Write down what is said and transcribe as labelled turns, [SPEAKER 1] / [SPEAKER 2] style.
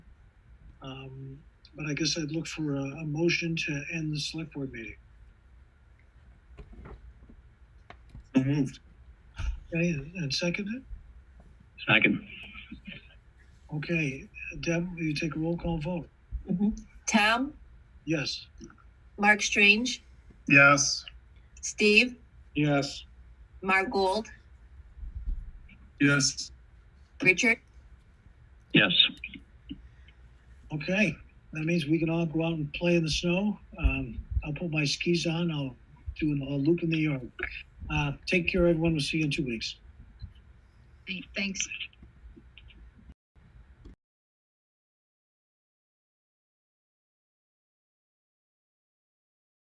[SPEAKER 1] Um, But I guess I'd look for a, a motion to end the select board meeting.
[SPEAKER 2] So moved.
[SPEAKER 1] Okay, and- and second it?
[SPEAKER 2] Second.
[SPEAKER 1] Okay, Deb, will you take a roll call vote?
[SPEAKER 3] Tom,
[SPEAKER 1] Yes.
[SPEAKER 3] Mark Strange,
[SPEAKER 2] Yes.
[SPEAKER 3] Steve,
[SPEAKER 2] Yes.
[SPEAKER 3] Mark Gold,
[SPEAKER 2] Yes.
[SPEAKER 3] Richard,
[SPEAKER 2] Yes.
[SPEAKER 1] Okay, that means we can all go out and play in the snow. Um, I'll put my skis on, I'll do an- a loop in the yard. Uh, take care, everyone. We'll see you in two weeks.
[SPEAKER 4] Thanks.